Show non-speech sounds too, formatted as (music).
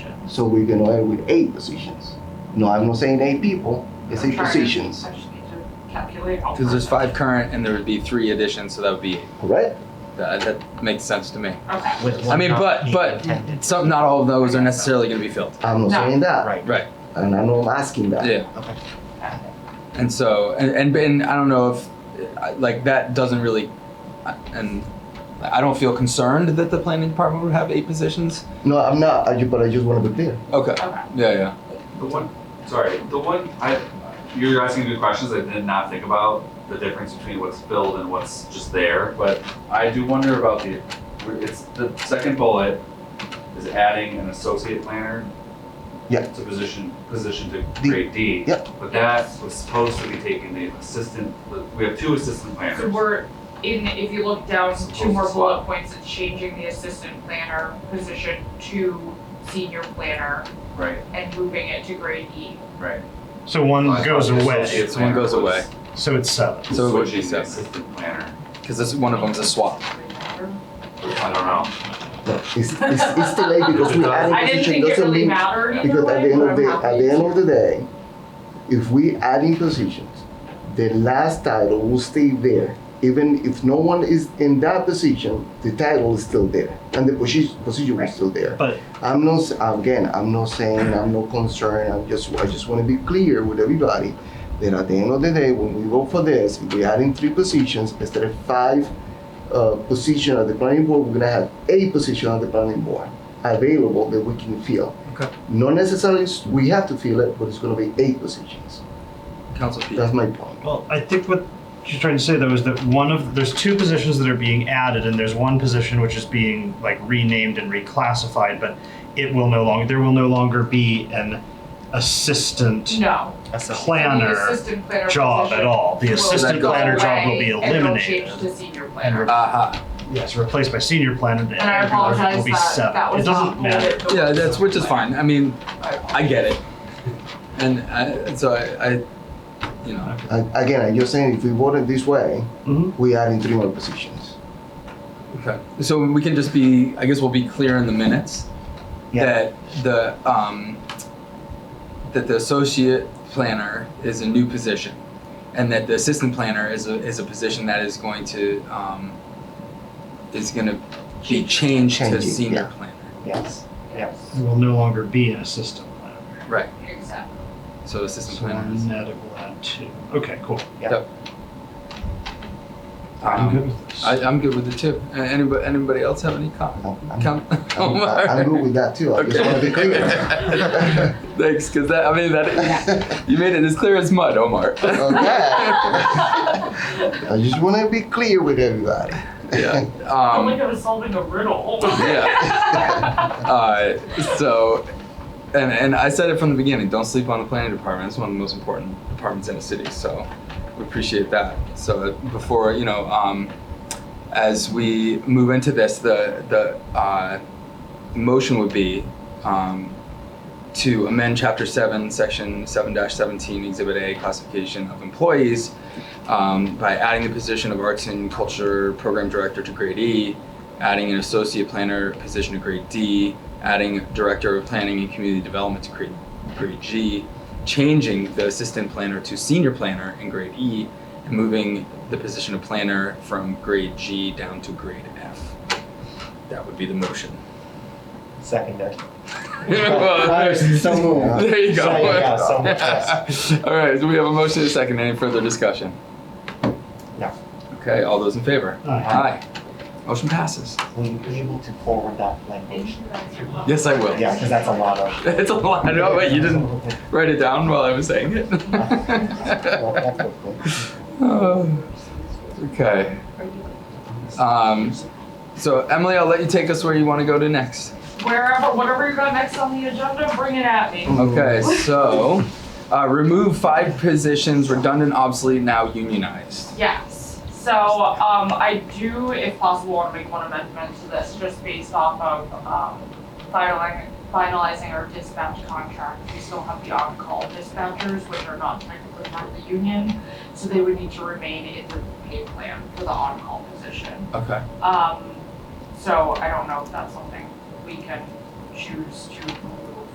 So we're gonna end with eight positions. No, I'm not saying eight people, it's eight Trying to- positions, I just need to calculate. all Because there's five. five current and there would be three additions, so that would be eight. correct? That, that makes sense to me. Okay. with I one mean, not but- being but- intended. Some, not all of those are necessarily going to be filled. I'm not No. saying that, Right. Right. and I know I'm asking that. Yeah. Okay. And so, and, and, and I don't know if, I- like, that doesn't really, I- and I don't feel concerned that the planning department would have eight positions. No, I'm not, I ju- but I just wanna be clear. Okay. Okay. Yeah, yeah. The one, sorry, the one, I, you're asking good questions, I did not think about the difference between what's filled and what's just there, but I do wonder about the, it's, the second bullet is adding an associate planner. Yeah. To position, position to D. grade D. Yeah. But that was supposed to be taking the assistant, we have two assistant planners. So we're in, if you look down, two more bullet points, it's changing the assistant planner position to senior planner Right, and moving it to grade E. right. So one I thought goes the away. associate So one planner goes away. was So it's seven. So it would be switching the seven. Assistant planner, Because this one of them's a swap. Remember? I don't Um, know. No, it's, it's, it's delayed because (laughs) we adding I didn't position think it doesn't really mean, mattered either because at the way, end but of I'm the, at happy. the end of the day, if we adding positions, the last title will stay there. Even if no one is in that position, the title is still there and the position, position Right. is still there. But I'm not, s- again, I'm not saying, I'm not concerned, I'm just, I just wanna be clear with everybody that at the end of the day, when we vote for this, if we add in three positions, instead of five, uh, position at the planning board, we're gonna have eight position at the planning board available that we can fill. Okay. Not necessarily, s- we have to fill it, but it's gonna be eight positions, Council Pete. that's my point. well, I think what she's trying to say though is that one of there's two positions that are being added, and there's one position which is being like renamed and reclassified, but it will no longer there will no longer be an assistant No. planner The assistant planner job at position all. The will assistant go planner job will away be And it'll eliminated. change to senior and planner. re- Aha. yes, replaced by senior planner. And, And I everyone will apologize be that seven. that it was not doesn't matter. bullet. Yeah, that's, which is fine. I mean, I get it. And I, so I, I, you know, And again, I'm just saying, if we vote it this way, Mhm. we add in three more positions. Okay, so we can just be, I guess we'll be clear in the minutes Yeah. that the, um, that the associate planner is a new position and that the assistant planner is a, is a position that is going to, um, is gonna be changed to Changing, senior yeah. planner. Yes. Yes, There will no longer be an assistant planner. Right, exactly. so assistant So planner is. net of that too. Okay, cool. I'm good um, with this. I, I'm good with it too. A- Anybody, anybody else have any com- I'm, I'm- com- I'm, (laughs) I'm good with that too, I just wanna be clear. Thanks, cause that, I (laughs) mean, that, (laughs) you made it as clear as mud, Omar. Okay. (laughs) (laughs) I just want to be clear with everybody. (laughs) Yeah. Oh my Um, god, it's solving a riddle. Oh (laughs) (laughs) Yeah. uh, so, and and I said it from the beginning. Don't sleep on the planning department. It's one of the most important departments in the city. So, we appreciate that. So before you know, um, as we move into this, the the uh, motion would be um, to amend Chapter Seven, Section Seven Seventeen, Exhibit A, classification of employees. Um, by adding the position of Arts and Culture Program Director to Grade E, adding an associate planner position to grade D, adding director of planning and community development to grade, grade G, changing the assistant planner to senior planner in grade E, and moving the position of planner from grade G down to grade F. That would be the motion. Seconded. (laughs) Well, So moved. there you go. So, yeah, so much less. (laughs) all right, so we have a motion and a second. Any further discussion? No. Okay, all those in favor? Aye. Aye. Motion passes. (laughs) Will you be able to forward that language? Yes, I will. Yeah, because that's a lot of. It's a lot. I know, but you didn't write it down while I was saying it. Well, (laughs) that's okay. Uh, okay. Um, so Emily, I'll let you take us where you want to go to next. Wherever, whatever you got next on the agenda, bring it at me. Okay, so uh, remove five positions, redundant, obsolete, now unionized. Yes, so, um, I do, if possible, wanna make one amendment to this, just based off of, um, finalizing, finalizing our dispatch contract. We still have the on-call dispatchers, which are not technically part of the union, so they would need to remain in the pay plan for the on-call position. Okay. Um, so I don't know if that's something we can choose to